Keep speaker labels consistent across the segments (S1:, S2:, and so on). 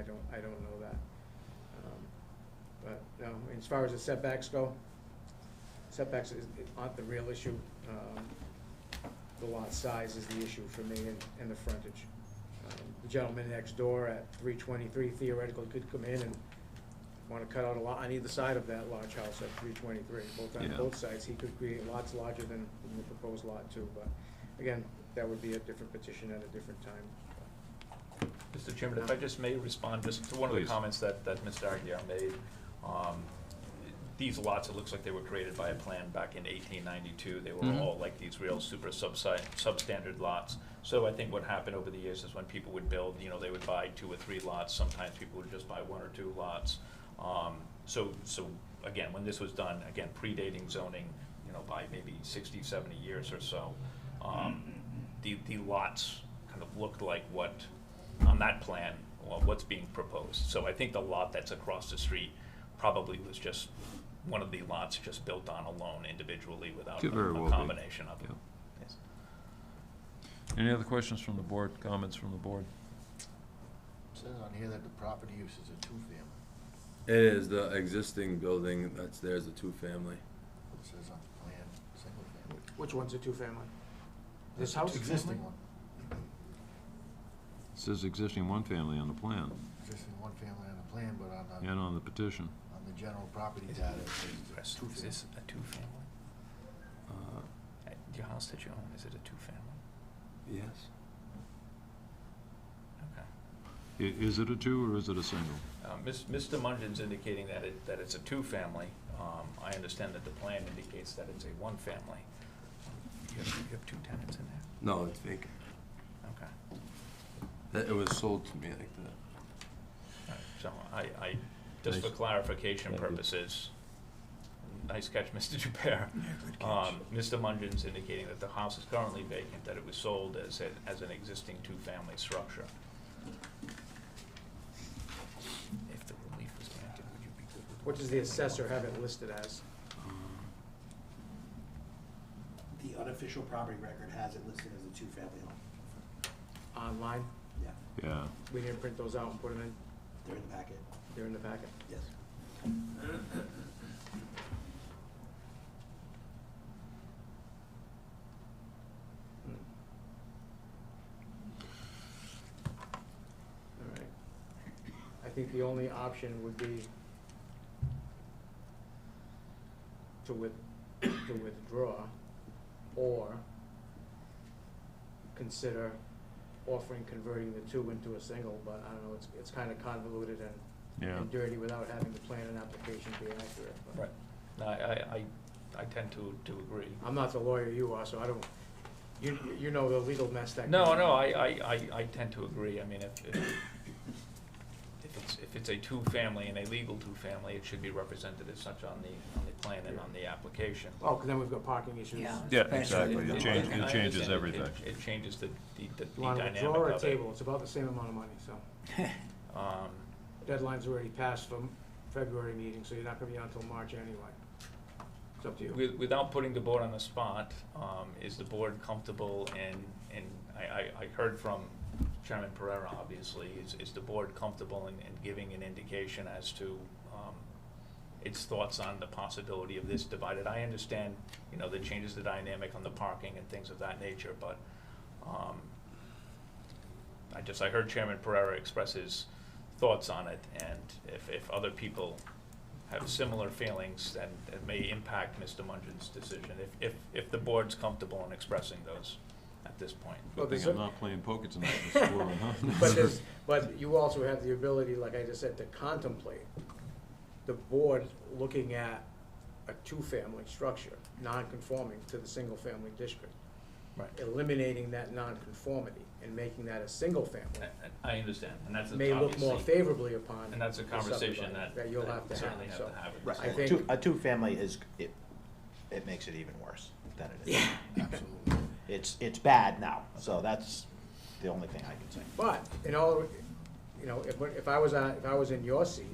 S1: I don't know that. Um, But, no, as far as the setbacks go, setbacks is, aren't the real issue. Um, The lot size is the issue for me and, and the frontage. Um, The gentleman next door at three twenty-three theoretically could come in and want to cut out a lot on either side of that large house at three twenty-three. Both on
S2: Yeah.
S1: both sides, he could create lots larger than the proposed lot too, but again, that would be a different petition at a different time.
S3: Mr. Chairman, if I just may respond just to one of the
S2: Please.
S3: comments that, that Mr. Aguirre made. Um, These lots, it looks like they were created by a plan back in eighteen ninety-two. They were
S2: Mhm.
S3: all like these real super subside, substandard lots. So I think what happened over the years is when people would build, you know, they would buy two or three lots. Sometimes people would just buy one or two lots. Um, So, so again, when this was done, again, predating zoning, you know, by maybe 60, 70 years or so, um, the, the lots kind of looked like what on that plan, well, what's being proposed. So I think the lot that's across the street probably was just one of the lots just built on alone individually without
S2: Could very
S3: a-
S2: well
S3: a
S2: be.
S3: combination of them. Yes.
S2: Any other questions from the board, comments from the board?
S4: Says on here that the property use is a two-family.
S5: It is the existing building that's there is a two-family.
S4: It says on the plan, single-family.
S1: Which one's a two-family? This house?
S4: Existing one.
S2: It Says existing one-family on the plan
S4: Existing one-family on the plan, but on the,
S2: and on the petition.
S4: on the general property data, it says
S3: Is
S4: two-family.
S3: this a two-family?
S5: Uh,
S3: Your house that you own, is it a two-family?
S5: Yes.
S3: Okay.
S2: I- is it a two or is it a single?
S3: Uh, Miss- Mr. Mungin's indicating that it, that it's a two-family. Um, I understand that the plan indicates that it's a one-family. You have, you have two tenants in there?
S5: No, it's vacant.
S3: Okay.
S5: That, it was sold to me like that.
S3: Alright, So I, I, just for
S2: Nice.
S3: clarification
S2: Thank you.
S3: purposes, nice catch, Mr. Dupere. Um, Mr. Mungin's indicating that the house is currently vacant, that it was sold as, a- as an existing two-family structure. If the relief was granted, would you be good with?
S1: What does the assessor have it listed as?
S6: The unofficial property record has it listed as a two-family home.
S1: Online?
S6: Yeah,
S2: Yeah.
S1: We didn't print those out and put them in,
S6: they're in the packet,
S1: they're in the packet.
S6: yes.
S1: All right. I think the only option would be to with, to withdraw or consider offering converting the two into a single, but I don't know, it's, it's kind of convoluted and-
S2: Yeah.
S1: and dirty without having the plan and application be accurate. but-
S3: Right. No, I, I, I- I tend to, to agree.
S1: I'm not the lawyer you are, so I don't, you, you know the legal mess that.
S3: No,
S1: goes
S3: no,
S1: on.
S3: I, I, I, I tend to agree, I mean, if, if, if it's, if it's a two-family and a legal two-family, it should be represented as such on the, on the plan and on the application.
S1: Oh, because then we've got parking issues.
S6: Yeah.
S2: Yeah,
S6: exactly.
S2: exactly. It
S6: It
S2: changes,
S6: change-
S3: And I
S2: it changes
S3: understand
S2: everything.
S3: It it changes the, the the
S1: You want to
S3: dynamic
S1: withdraw or
S3: of it.
S1: table, it's about the same amount of money, so.
S3: Um,
S1: Deadline's already passed from February meeting, so you're not gonna be on until March anyway. It's up to you.
S3: with- Without putting the board on the spot, um, is the board comfortable in, in, I, I, I heard from Chairman Pereira, obviously, is, is the board comfortable in, in giving an indication as to, um, its thoughts on the possibility of this divided? I understand, you know, that changes the dynamic on the parking and things of that nature, but, um, I just, I heard Chairman Pereira express his thoughts on it, and if, if other people have similar feelings, then it may impact Mr. Mungin's decision, if, if, if the board's comfortable in expressing those at this point.
S1: Well,
S2: Good thing
S1: there's
S2: I'm
S1: a-
S2: not playing poker tonight, Mr. Gorman, huh?
S1: But there's, but you also have the ability, like I just said, to contemplate the board looking at a two-family structure, non-conforming to the single-family district,
S3: Right.
S1: eliminating that non-conformity and making that a single-family.
S3: I understand, and that's
S1: may look more
S3: obviously,
S1: favorably upon.
S3: and that's a
S1: the
S3: conversation
S1: subdivision
S3: that,
S1: That you'll have
S3: that
S1: to have,
S3: certainly have
S1: so.
S3: to have. at
S1: I
S3: this
S1: think-
S7: Two- A two-family is, it, it makes it even worse than it is. Yeah.
S4: Absolutely.
S7: It's, it's bad now, so that's the only thing I can say.
S1: But, in all, you know, if, if I was on, if I was in your seat,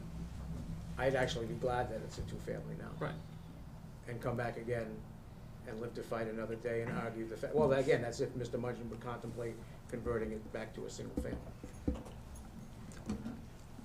S1: I'd actually be glad that it's a two-family now.
S3: Right.
S1: And come back again and live to fight another day and argue the fact, well, again, that's if Mr. Mudgeon would contemplate converting it back to a single family.